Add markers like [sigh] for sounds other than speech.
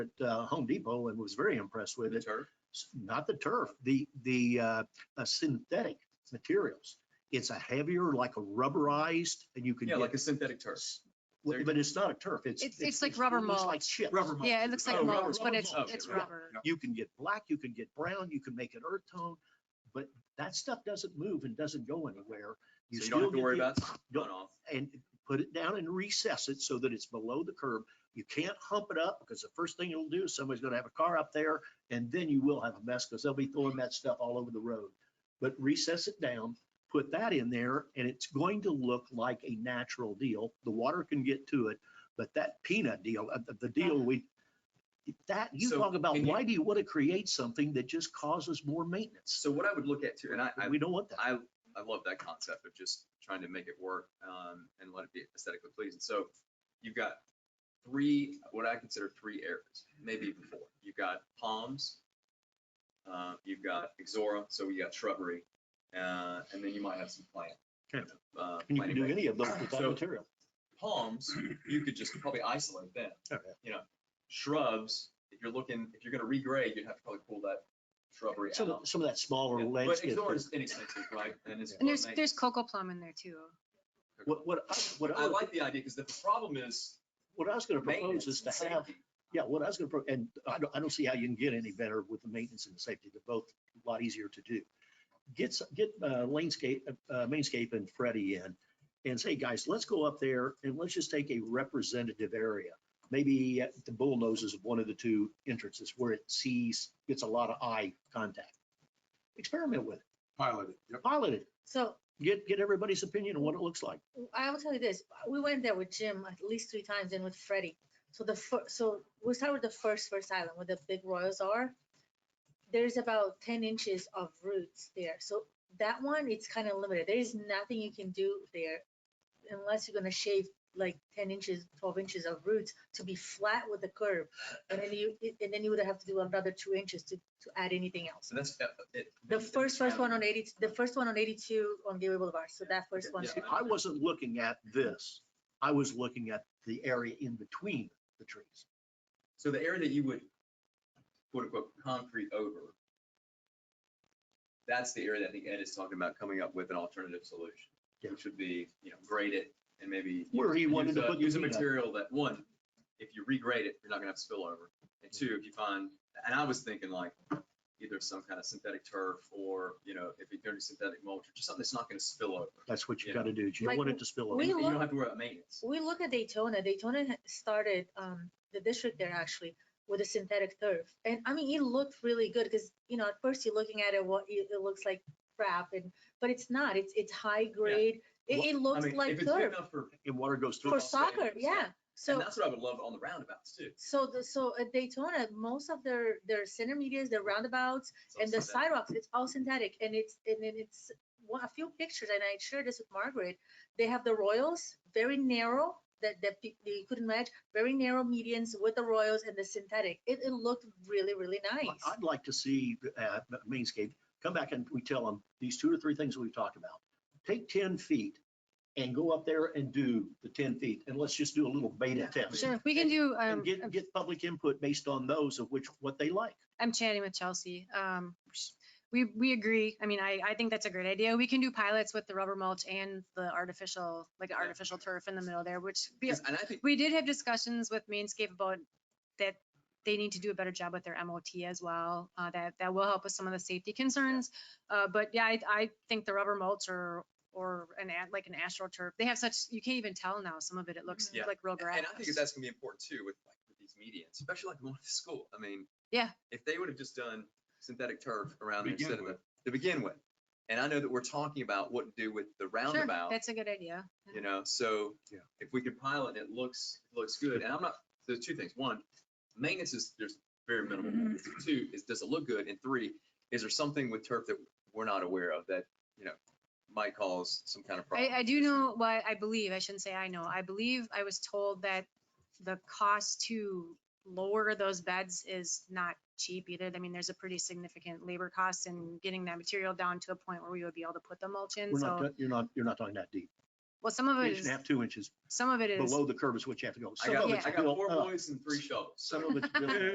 at uh, Home Depot and was very impressed with The it. turf? S- Not the turf, the, the uh, uh, synthetic materials. It's a heavier, like a rubberized, and you can Yeah, get, like a synthetic turf. s- There w- you but it's not a turf. It's. It's- it's like rubber it looks Like mulch. chips. Rubber mulch. Yeah, it looks Oh, like rubber- mulch, but rubber it's, mulch, it's yeah, yeah. rubber. You can get black, you can get brown, you can make it earth tone, but that stuff doesn't move and doesn't go anywhere. So you don't have still to get worry the- about don't- going off. and put it down and recess it so that it's below the curb. You can't hump it up because the first thing it'll do is somebody's gonna have a car up there and then you will have a mess because they'll be throwing that stuff all over the road. But recess it down, put that in there and it's going to look like a natural deal. The water can get to it, but that peanut deal, uh, the- the deal we, that, you So, talk about, and you- why do you want to create something that just causes more maintenance? So what I would look at too, and I, I, We don't want that. I, I love that concept of just trying to make it work, um, and let it be aesthetically pleasing. So you've got three, what I consider three areas, maybe even four. You've got palms, uh, you've got ixora, so you got shrubbery, uh, and then you might have some plant. Okay. uh, And you can planting do bed. any of those with that So- material. Palms, you could just probably isolate them. Okay. You know, shrubs, if you're looking, if you're gonna regrade, you'd have to probably pull that shrubbery Some, out. of- some of that smaller Yeah, But landscape. ixora is inexpensive, right? it's And there's, gourmet. there's cocoa plum in there too. What, what, I- what I I, like the idea because the problem is what I was gonna propose maintenance is and to have, safety. yeah, what I was gonna, pro- and I don't, I don't see how you can get any better with the maintenance and the safety. They're both a lot easier to do. Get, s- get uh, Lanescape, uh, Mainscape and Freddie in and say, guys, let's go up there and let's just take a representative area. Maybe at the bull noses of one of the two entrances where it sees, gets a lot of eye contact. Experiment with it, Pilot it. Yep. pilot it, So get, get everybody's opinion on what it looks like. I will tell you this, we went there with Jim at least three times and with Freddie. So the fir- so we start with the first first island where the big royals are. There's about ten inches of roots there. So that one, it's kind of limited. There is nothing you can do there unless you're gonna shave like ten inches, twelve inches of roots to be flat with the curb. And then you, and then you would have to do another two inches to to add anything else. So that's. that- it- The that's first first one on challenging. eighty, the first one on eighty-two on Gateway Boulevard. So that first Okay, one. yeah. See, I wasn't looking at this. I was looking at the area in between the trees. So the area that you would quote unquote concrete over. That's the area that I think Ed is talking about coming up with an alternative solution, Yeah. which would be, you know, grade it and maybe. Where he use wanted to a- put the Use a peanut. material that, one, if you regrade it, you're not gonna have spillover. And two, if you find, and I was thinking like either some kind of synthetic turf or, you know, if you're doing synthetic mulch, or just something that's not gonna spill over. That's what you Yeah. gotta do. You don't Like, want it to spill over. we And You don't look- have to worry about maintenance. We look at Daytona. Daytona ha- started um, the district there actually with a synthetic turf, and I mean it looked really good because you know at first you're looking at it, what it, it looks like crap, and but it's not. It's it's high grade. Well, It, it I looks mean, like if it's good turf enough for And water goes through. for football stadium soccer. and stuff. Yeah. So And that's what I would love on the roundabouts too. so the, so at Daytona, most of their their center medias, their roundabouts, It's all and the synthetic. sidewalks, it's all synthetic and it's, and then it's, one- a few pictures, and I shared this with Margaret. They have the Royals, very narrow, that, that pe- they couldn't match, very narrow medians with the Royals and the synthetic. It, it looked really, really nice. I'd like to see, uh, Mainscape, come back and we tell them, these two or three things we've talked about. Take ten feet and go up there and do the ten feet and let's just do a little beta test. Sure, we can do, um, And get, I'm- get public input based on those of which, what they like. I'm chatting with Chelsea. Um, sh- we, we agree. I mean, I, I think that's a great idea. We can do pilots with the rubber mulch and the artificial, like an Yeah. artificial turf in the middle there, which be- 'Cause- And I think, we did have discussions with Mainscape about that they need to do a better job with their MOT as well. Uh, that, that will help with some of the safety concerns. Uh, but yeah, I, I think the rubber mulch or, or an, a- like an astroturf, they have such, you can't even tell now, some of it, it looks Yeah. like real and grass. I think that's gonna be important too with like with these medians, especially like the one at the school. I mean. Yeah. If they would have just done synthetic turf around there Begin instead of, with. the- to begin with. And I know that we're talking about what to do with the Sure, roundabout, That's a good idea. you know, so. Yeah. If we could pilot, and it looks, looks good. And I'm not, there's two things. One, maintenance is, there's very minimal. Mm-hmm. maintenance. Two, is, does it look good? And three, is there something with turf that we're not aware of that, you know, might cause some kind of I, problem? I do know, well, I believe, I shouldn't say I know, I believe I was told that the cost to lower those beds is not cheap either. I mean, there's a pretty significant labor cost in getting that material down to a point where we would be able to put the mulch in, We're not, so, ta- you're not, you're not talking that deep. well, some of it Inch and is, a half, two inches some of it is. below the curb is what you have to go. I Some of got, it's I got built uh, four up. boys and three shovels. [laughs] Some of it's built up.